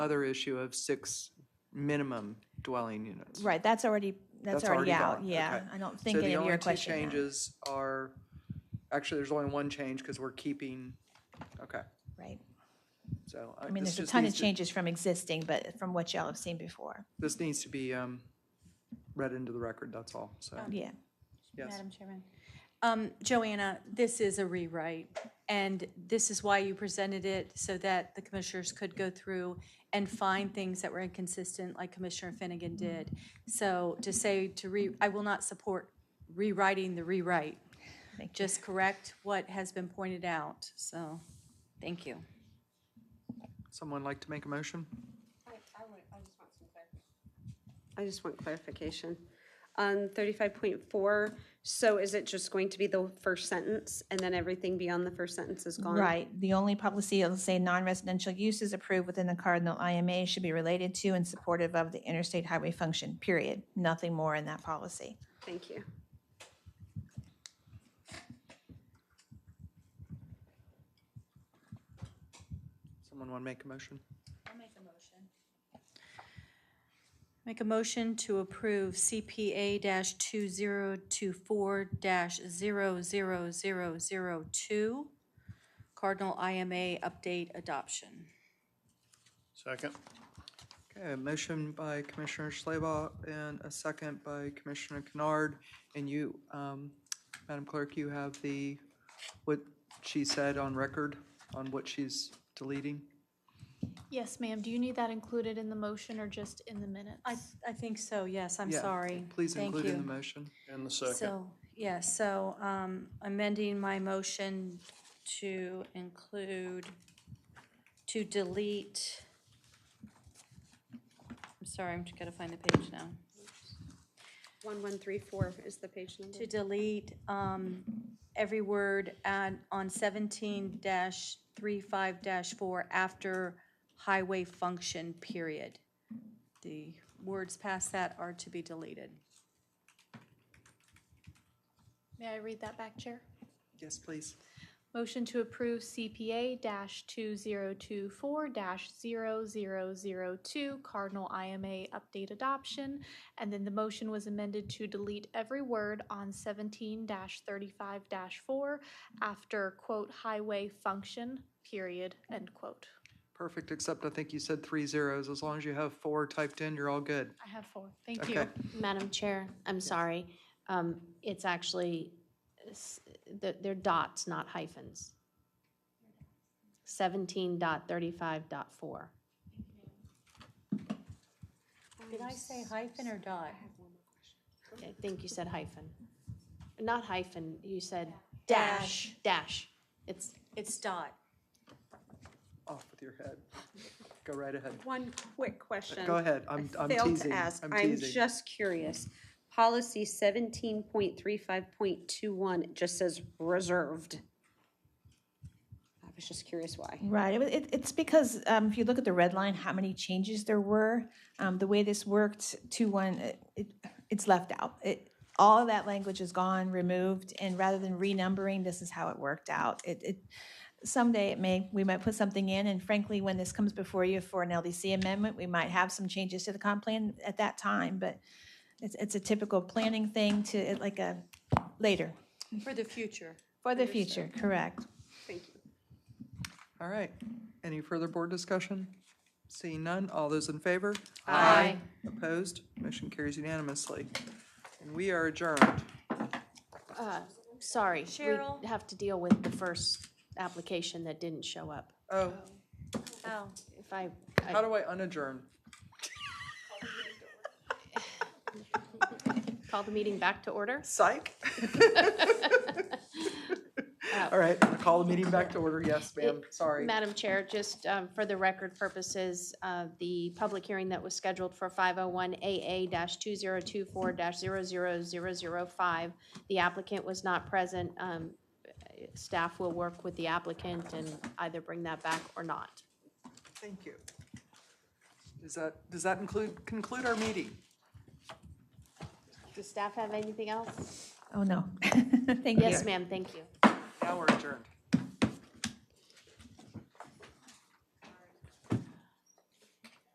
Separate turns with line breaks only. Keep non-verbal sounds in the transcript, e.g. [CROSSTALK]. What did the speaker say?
other issue of six minimum dwelling units.
Right, that's already, that's already out,
gone.
yeah.
Okay.
I don't think any of you are questioning
So the only
that.
two changes are, actually, there's only one change because we're keeping, okay,
Right.
so. uh,
I mean,
this
there's a
just
ton of
needs to-
changes from existing, but from what y'all have seen before.
This needs to be um, read into the record, that's all, so,
Yeah,
yes.
Madam Chairman. Um, Joanna, this is a rewrite, and this is why you presented it, so that the commissioners could go through and find things that were inconsistent, like Commissioner Finnegan did. So to say to re, I will not support rewriting the rewrite.
Thank you.
Just correct what has been pointed out, so, thank you.
Someone like to make a motion?
I just want clarification. On thirty-five point four, so is it just going to be the first sentence and then everything beyond the first sentence is gone?
right. The only policy, it'll say non-residential uses approved within the Cardinal IMA should be related to and supportive of the interstate highway function, period. Nothing more in that policy.
Thank you.
Someone want to make a motion?
Make a motion to approve CPA two zero two four 2 Cardinal IMA update adoption.
Second.
Okay, a motion by Commissioner Schleba and a second by Commissioner Kennard. And you, um, Madam Clerk, you have the, what she said on record, on what she's deleting?
Yes, ma'am. Do you need that included in the motion or just in the minutes?
I, I think so, yes, I'm
Yeah,
sorry.
Please
Thank
include in the
you.
motion.
And the second.
So, yeah, so um, amending my motion to include, to delete, I'm sorry, I'm just gonna find the page now.
One, one, three, four is the page number.
To delete um, every word at, on seventeen dash three-five dash four after highway function period. The words past that are to be deleted.
May I read that back, Chair?
Yes, please.
Motion to approve CPA two zero two four 2 Cardinal IMA update adoption. And then the motion was amended to delete every word on seventeen thirty-five four after quote highway function, period, end quote.
Perfect, except I think you said three zeros. As long as you have four typed in, you're all good.
I have four. Thank you.
Okay,
Madam Chair, I'm sorry. Um, It's actually, s- th- they're dots, not hyphens. 17 dot 35 dot 4.
Did I say hyphen or dot?
I think you said hyphen. Not hyphen, you said
Dash.
dash, dash. It's,
It's dot.
off with your head. Go right ahead.
One quick question.
Go ahead,
I
I'm, I'm
failed
teasing.
to ask.
I'm
I'm
teasing.
just curious. Policy seventeen point three five point two one, it just says reserved. I was just curious why.
Right, it wa- it, it's because, um, if you look at the red line, how many changes there were, um, the way this worked, two, one, it, it- it's left out. It, all of that language is gone, removed, and rather than renumbering, this is how it worked out. It, it, someday it may, we might put something in, and frankly, when this comes before you for an LDC amendment, we might have some changes to the comp plan at that time, but it's, it's a typical planning thing to, it like a, later,
For the future.
for the future, correct.
Thank you.
All right. Any further board discussion? Seeing none, all those in favor?
Aye.
Opposed? Motion carries unanimously. And we are adjourned.
uh, sorry.
Cheryl?
We have to deal with the first application that didn't show up.
Oh,
Oh.
If I, I-
how do I unadjourn?
call the meeting back to order?
Psych? All right, I'm gonna call the meeting back to order. Yes, ma'am, sorry.
Madam Chair, just um, for the record purposes, uh, the public hearing that was scheduled for 501AA-2024-00005, the applicant was not present. Um, Staff will work with the applicant and either bring that back or not.
Thank you. Does that, does that include, conclude our meeting?
Does staff have anything else?
Oh, no. [LAUGHS] Thank you.
Yes, ma'am, thank you.
Now we're adjourned.